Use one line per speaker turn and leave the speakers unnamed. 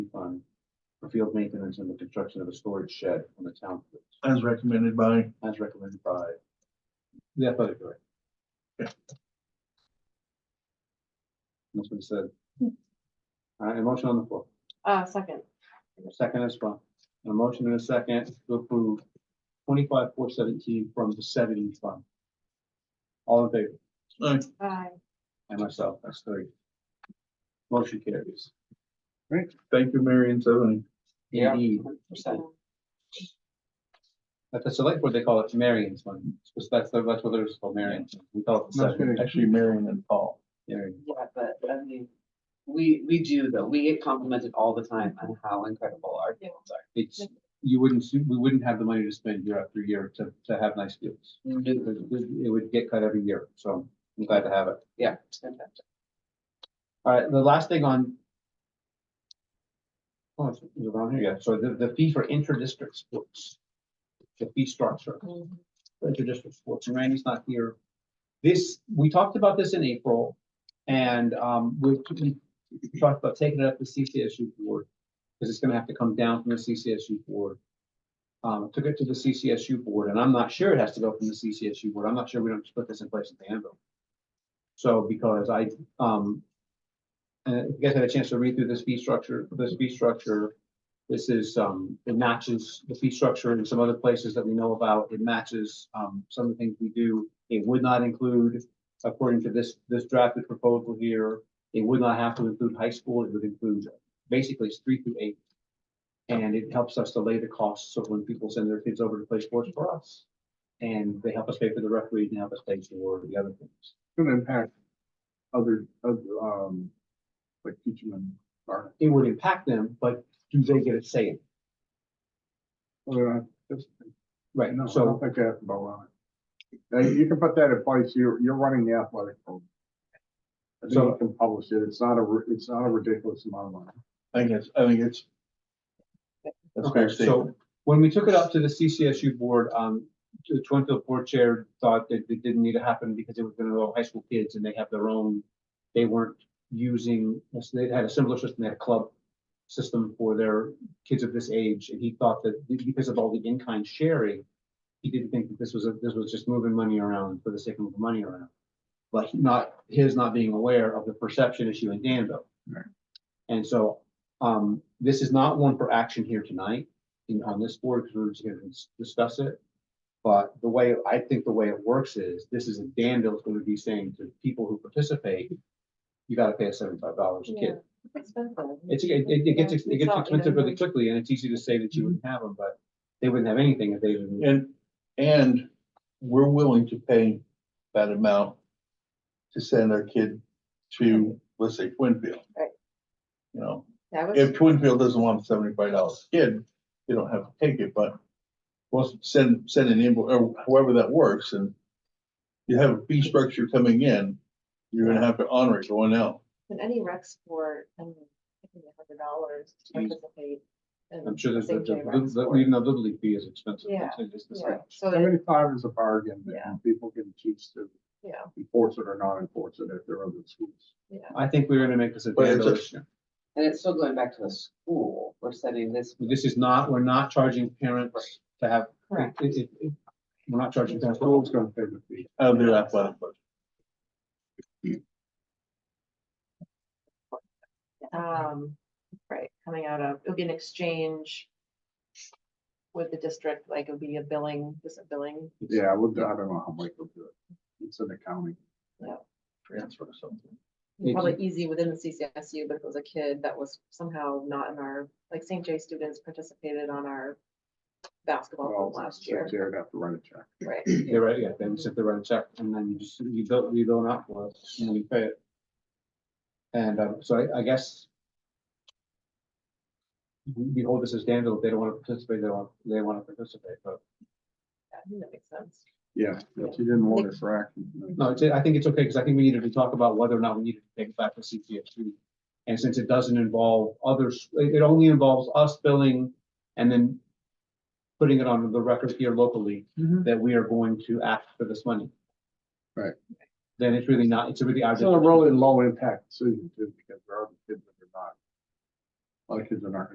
field maintenance and the construction of a storage shed on the town, field,
as recommended by,
as recommended by the athletic director.
Yeah.
That's what it said. All right, a motion on the floor,
Uh, second,
A second as well, a motion and a second to approve twenty-five, four seventeen from the seventy fund. All in favor?
uh,
aye.
And myself, that's three. Motion carries.
thank you, Mary and Tony.
Yeah.
Indeed. At the select board, they call it Marion's money, because that's, the- that's what it's called, Marion's. We call it the seven.
Actually, Mary and Paul.
Marion.
Yeah, but I mean, we, we do though, we get complimented all the time on how incredible our fields are.
It's, you wouldn't, see- we wouldn't have the money to spend year after year to, to have nice fields. It
No,
would- it would get cut every year, so I'm glad to have it.
Yeah, it's fantastic.
All right, the last thing on. Oh, it's it's around here, yeah, so the, the fee for inter-district sports. The fee structure. inter-district sports, and Randy's not here. This, we talked about this in April, and um, we we talked about taking it up to CCSU board, because it's gonna have to come down from the CCSU board. Um, took it to the CCSU board, and I'm not sure it has to go from the CCSU board, I'm not sure we don't just put this in place at the end of. So, because I, um, and if you guys had a chance to read through this fee structure, this fee structure, this is, um, it matches the fee structure in some other places that we know about. It matches, um, some of the things we do. It would not include, according to this, this drafted proposal here, it would not have to include high school. It would include basically it's three through eight. And it helps us delay the costs of when people send their kids over to play sports for us. And they help us pay for the referee and help us pay for the other things.
gonna impact other, other, um, like teaching them, or,
It would impact them, but do they get a say? in it?
or, uh, that's,
Right,
no, I
so
don't think that's about it. Now, you can put that in place, you're, you're running the athletic program. I think
So-
you can publish it, it's not a, ri- it's not a ridiculous amount of money.
I guess, I think it's. That's a fair
Okay,
statement.
so when we took it up to the CCSU board, um, the Twinfield board chair thought that it didn't need to happen because it was gonna go high school kids and they have their own. They weren't using, they had a similar system, they had a club system for their kids of this age. And he thought that because of all the in-kind sharing, he didn't think that this was, a this was just moving money around for the sake of moving money around. But not, his not being aware of the perception issue in Danville.
Right.
And so, um, this is not one for action here tonight in, on this board, because we're just gonna dis- discuss it. But the way, I think the way it works is, this is a Danville's gonna be saying to people who participate, you gotta pay us seventy-five dollars a kid. It's, it, it it gets, ex- it gets expensive really quickly, and it's easy to say that you wouldn't have them, but they wouldn't have anything if they didn't.
And, and we're willing to pay that amount to send our kid to, let's say, Twinfield.
Right.
You know,
That
if Twinfield doesn't want a seventy-five dollar kid, they don't have to take it, but well, send, send an invoice, or however that works, and you have a fee structure coming in, you're gonna have to honor it going out.
in any rec sport, I mean, I think a hundred dollars to
Jeez.
participate. in
Mm-hmm. I'm sure there's, the-
same day rec
the- the-
sport.
even the little league fee is expensive.
Yeah,
It's just the
Yeah,
same.
so, that-
Seventy-five is a bargain,
Yeah.
and people can choose to
yeah,
enforce it or not enforce it if they're other schools.
yeah.
I think we're gonna make this a
But it's
Danville
a-
issue.
And it's still going back to the school, we're sending this.
This is not, we're not charging parents to have, it,
Correct.
it, it- we're not charging
The
parents.
school's gonna pay the fee.
of their athletic budget.
Um, right, coming out of, it'll be an exchange with the district, like it'll be a billing, just a billing.
Yeah, I would, I don't know how Mike will do it. It's an accounting.
transfer or something.
Mhm.
Probably easy within the CCSU, but if it was a kid that was somehow not in our, like St. J students participated on our basketball
Well,
team last year,
Jared have to write a check.
right?
They're right, yeah, they would sit there and check, and then you just, you don't, you don't up for it, and then you pay it. And, um, so I, I guess. We we hold this as Danville, if they don't wanna participate, they don't, they wanna participate, but,
Yeah, I think that makes sense.
Yeah, if you didn't want it for action.
no, it's, I think it's okay, cause I think we needed to talk about whether or not we needed to take it back to CPSU. And since it doesn't involve others, it, it only involves us billing and then. Putting it on the record here locally, that we are going to act for this money.
Right.
Then it's really not, it's really. our
It's a
decision.
really low impact decision too, because there are kids that are not. A lot of kids are not